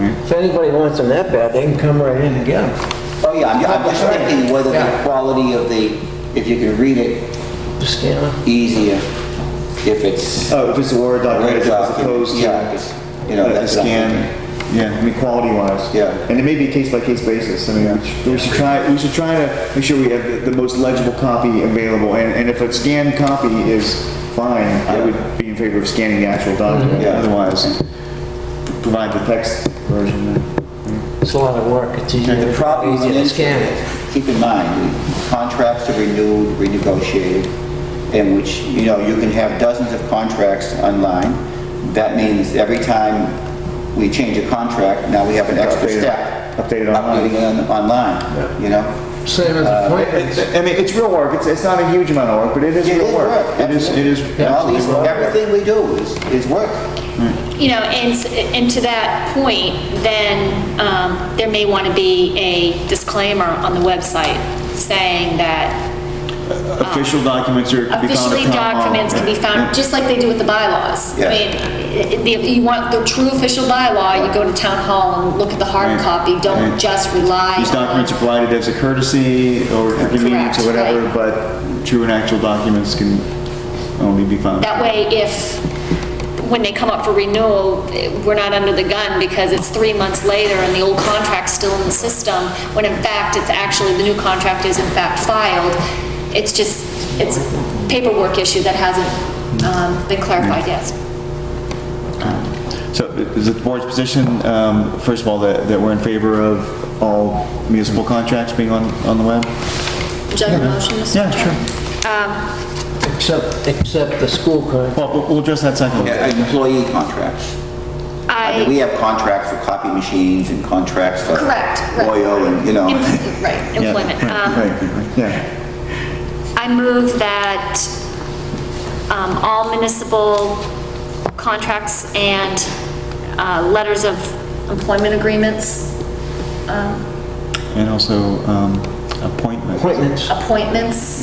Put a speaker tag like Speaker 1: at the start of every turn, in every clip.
Speaker 1: If anybody wants them that bad, they can come right in and get them.
Speaker 2: Oh, yeah, I'm I'm just thinking whether the quality of the, if you can read it
Speaker 1: Just scan them.
Speaker 2: easier, if it's.
Speaker 3: Oh, if it's a Word document
Speaker 2: Word
Speaker 3: as
Speaker 2: document,
Speaker 3: opposed to.
Speaker 2: yeah, it's- you know,
Speaker 3: a- a
Speaker 2: that's what I'm
Speaker 3: Scan, yeah, I mean, quality wise.
Speaker 2: Yeah.
Speaker 3: And it may be a case by case basis, I mean, we should- we should try, we should try to make sure we have the the most legible copy available, and, and if a scanned copy is fine, I
Speaker 2: Yeah. Mm-hmm.
Speaker 3: would be in favor of scanning the actual document,
Speaker 2: Yeah.
Speaker 3: otherwise, provide the text version. then.
Speaker 1: It's a lot of work. It's easier,
Speaker 2: The problem
Speaker 1: easier to
Speaker 2: is,
Speaker 1: scan it.
Speaker 2: keep in mind, contracts are renewed, renegotiated, in which, you know, you can have dozens of contracts online. That means every time we change a contract, now we have an extra
Speaker 3: Updated-
Speaker 2: step.
Speaker 3: updated online.
Speaker 2: Updating it on- online, you know?
Speaker 1: Same as appointments.
Speaker 3: I mean, it's real work, it's, it's not a huge amount of work, but it is
Speaker 2: It
Speaker 3: real
Speaker 2: is work.
Speaker 3: work. It is, it is.
Speaker 2: And all
Speaker 3: absolutely
Speaker 2: these,
Speaker 3: real work.
Speaker 2: everything we do is, is work.
Speaker 4: You know, and, s- and to that point, then, um, there may want to be a disclaimer on the website saying that
Speaker 3: Official documents are, can be found
Speaker 4: officially
Speaker 3: at
Speaker 2: uh,
Speaker 3: town hall.
Speaker 4: documents can be found, just like they do with the bylaws. I
Speaker 2: Yeah.
Speaker 4: mean, i- i- if you want the true official bylaw, you go to town hall and look at the hard
Speaker 3: Right.
Speaker 4: copy,
Speaker 3: Right.
Speaker 4: don't just rely
Speaker 3: These documents are
Speaker 4: on.
Speaker 3: provided as a courtesy or for convenience or
Speaker 4: Correct,
Speaker 3: whatever,
Speaker 4: right.
Speaker 3: but true and actual documents can only be found.
Speaker 4: That way, if, when they come up for renewal, eh, we're not under the gun because it's three months later and the old contract's still in the system, when in fact, it's actually, the new contract is in fact filed. It's just, it's a paperwork issue that hasn't um, been clarified yet.
Speaker 3: So is it the board's position, um, first of all, that, that we're in favor of all municipal contracts being on, on the web?
Speaker 4: Would you like a motion, Mr.
Speaker 3: Yeah,
Speaker 4: Chairman?
Speaker 3: sure.
Speaker 1: Except, except the school contract.
Speaker 3: Well, we'll- we'll address that second.
Speaker 2: Employee contracts. I mean, we
Speaker 4: I,
Speaker 2: have contracts for copy machines and contracts for.
Speaker 4: Correct, right.
Speaker 2: Oil and, you know.
Speaker 4: em- right,
Speaker 3: Yeah,
Speaker 4: employment.
Speaker 3: right,
Speaker 4: Um,
Speaker 3: right, right, Yeah,
Speaker 4: I move that um, all municipal contracts and uh, letters of employment agreements, um,
Speaker 3: and also um, appointments.
Speaker 1: Appointments.
Speaker 4: appointments,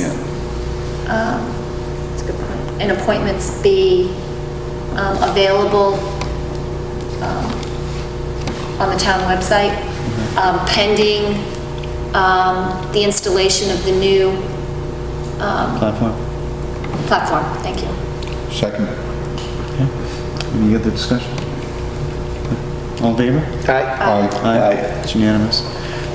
Speaker 2: Yeah.
Speaker 4: um, that's a good point, and appointments be um, available um, on the town website um, pending um, the installation of the new um,
Speaker 3: Platform.
Speaker 4: platform. Thank you.
Speaker 3: Second. Any other discussion? All in favor?
Speaker 1: Aye.
Speaker 3: Aye. It's unanimous.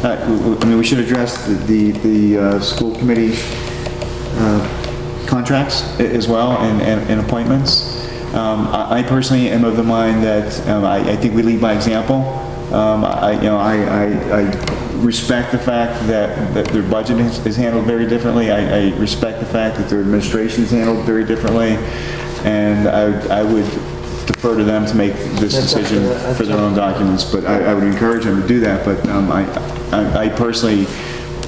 Speaker 3: Uh, w- w- I mean, we should address the- the, the uh, school committee uh, contracts a- as well and- and and appointments. Um, I I personally am of the mind that um, I I think we lead by example. Um, I, you know, I, I- I respect the fact that that their budget is is handled very differently. I I respect the fact that their administration is handled very differently, and I I would defer to them to make this
Speaker 1: That's up to
Speaker 3: decision
Speaker 1: the- that's
Speaker 3: for their
Speaker 1: up
Speaker 3: own documents, but I, I would encourage them to do that, but um, I, I I personally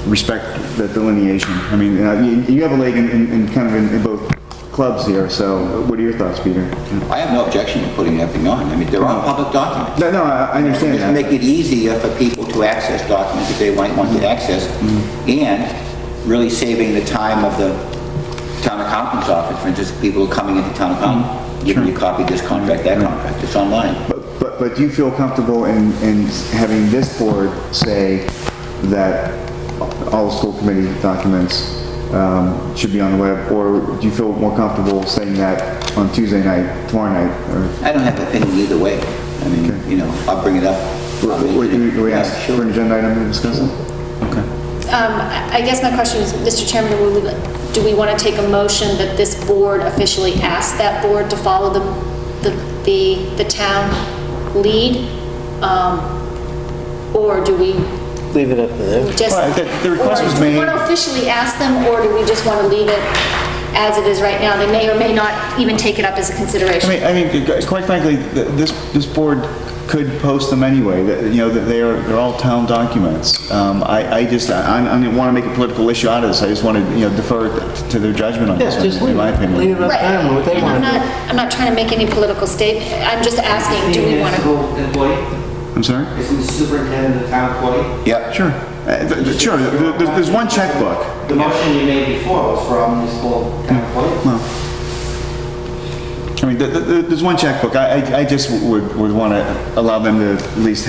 Speaker 3: respect the delineation. I mean, uh, you you have a leg in- in, in kind of in- in both clubs here, so what are your thoughts, Peter?
Speaker 2: I have no objection to putting everything on. I mean, they're all public documents.
Speaker 3: No, no, I I understand
Speaker 2: Just
Speaker 3: that.
Speaker 2: make it easier for people to access documents if they might want to access, and really saving the time of the town accountant's office, for instance, people coming into town accountant, giving you a copy of this contract, that contract, it's online.
Speaker 3: But, but- but do you feel comfortable in, in having this board say that all school committee documents um, should be on the web, or do you feel more comfortable saying that on Tuesday night, tomorrow night, or?
Speaker 2: I don't have an opinion either way. I mean, you know, I'll bring it up. I'll mention
Speaker 3: Were
Speaker 2: it.
Speaker 3: you, were you
Speaker 2: Yeah,
Speaker 3: asked
Speaker 2: sure.
Speaker 3: for an agenda item to discuss it? Okay.
Speaker 4: Um, I I guess my question is, Mr. Chairman, do we- do we want to take a motion that this board officially ask that board to follow the, the- the, the town lead? Um, Or do we
Speaker 1: Leave it up to them.
Speaker 4: just?
Speaker 3: Well, the- the request was
Speaker 4: Or do we
Speaker 3: made-
Speaker 4: want to officially ask them, or do we just want to leave it as it is right now? They may or may not even take it up as a
Speaker 3: I
Speaker 4: consideration.
Speaker 3: mean, I mean, gu- quite frankly, th- this, this board could post them anyway, that, you know, that they are, they're all town documents. Um, I, I just, I, I didn't want to make a political issue out of this, I just wanted, you know, defer it to their judgment on this,
Speaker 1: Yeah, just
Speaker 3: one, in
Speaker 1: leave
Speaker 3: my
Speaker 1: it. Leave it
Speaker 3: opinion.
Speaker 1: up to
Speaker 4: Right.
Speaker 1: them, what they
Speaker 4: And
Speaker 1: want
Speaker 4: I'm
Speaker 1: to
Speaker 4: not,
Speaker 1: do.
Speaker 4: I'm not trying to make any political statement. I'm just asking, do we want to?
Speaker 5: Municipal employee,
Speaker 3: I'm sorry?
Speaker 5: isn't the superintendent the town employee?
Speaker 2: Yeah.
Speaker 3: Sure. Uh, th- th- Sure, there- there's, there's one checkbook.
Speaker 5: The motion you made before was for all municipal town employees.
Speaker 3: I mean, th- th- th- there's one checkbook, I, I- I just would, would want to allow them to at least